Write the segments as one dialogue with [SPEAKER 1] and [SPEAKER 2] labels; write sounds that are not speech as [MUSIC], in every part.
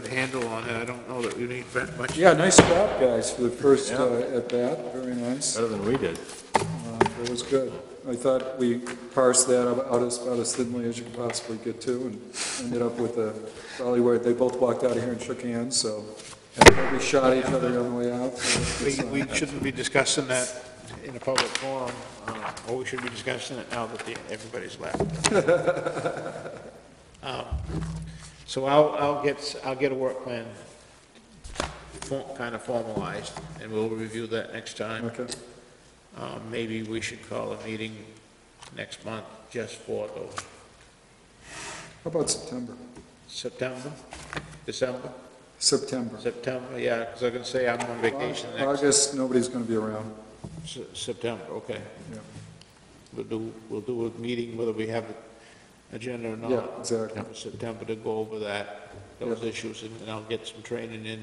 [SPEAKER 1] good handle on it. I don't know that we need that much.
[SPEAKER 2] Yeah, nice job, guys, for the first uh, at-bat, very nice.
[SPEAKER 3] Better than we did.
[SPEAKER 2] It was good. I thought we parsed that ab- out as, about as thinly as you could possibly get to, and ended up with a, probably where they both walked out of here and shook hands, so we shot each other on the way out. so
[SPEAKER 1] We,
[SPEAKER 2] it's, uh,
[SPEAKER 1] we shouldn't be discussing that in a public forum, uh, or we should be discussing it now that the, everybody's left.
[SPEAKER 2] [LAUGHS]
[SPEAKER 1] Um, So I'll, I'll get, I'll get a work plan kind of formalized, and we'll review that next time.
[SPEAKER 2] Okay,
[SPEAKER 1] Uh, Maybe we should call a meeting next month just for those,
[SPEAKER 2] how about September?
[SPEAKER 1] September, December,
[SPEAKER 2] September.
[SPEAKER 1] September, yeah, because I can say I'm on vacation next,
[SPEAKER 2] August, nobody's gonna be around.
[SPEAKER 1] Se- September, okay.
[SPEAKER 2] Yeah.
[SPEAKER 1] We'll do, we'll do a meeting whether we have an agenda or not.
[SPEAKER 2] Yeah, exactly.
[SPEAKER 1] For September to go over that, those
[SPEAKER 2] Yeah.
[SPEAKER 1] issues, and and I'll get some training in.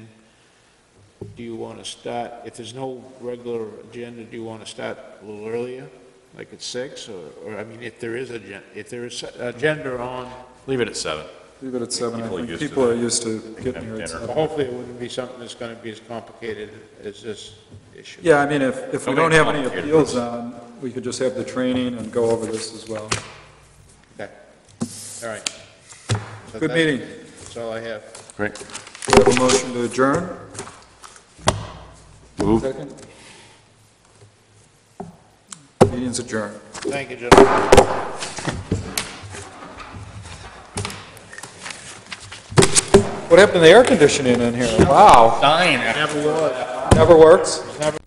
[SPEAKER 1] Do you want to start, if there's no regular agenda, do you want to start a little earlier, like at six, or, or, I mean, if there is a, gen- if there is a- agenda on,
[SPEAKER 3] Leave it at seven.
[SPEAKER 2] Leave it at seven, I
[SPEAKER 3] People are
[SPEAKER 2] think
[SPEAKER 3] used to
[SPEAKER 2] people
[SPEAKER 3] that.
[SPEAKER 2] are used to getting here at
[SPEAKER 3] dinner.
[SPEAKER 2] seven.
[SPEAKER 1] hopefully it wouldn't be something that's going to be as complicated as this issue.
[SPEAKER 2] Yeah, I mean, if, if we
[SPEAKER 3] Nobody
[SPEAKER 2] don't have any
[SPEAKER 3] volunteered.
[SPEAKER 2] appeals on, we could just have the training and go over this as well.
[SPEAKER 1] Okay, all right. So
[SPEAKER 2] Good
[SPEAKER 1] that-
[SPEAKER 2] meeting.
[SPEAKER 1] That's all I have.
[SPEAKER 3] Great.
[SPEAKER 2] We have a motion to adjourn,
[SPEAKER 3] Move.
[SPEAKER 2] second? Meeting's adjourned.
[SPEAKER 1] Thank you, gentlemen.
[SPEAKER 2] What happened to the air conditioning in here? Wow,
[SPEAKER 3] Nine.
[SPEAKER 2] never works?
[SPEAKER 1] Never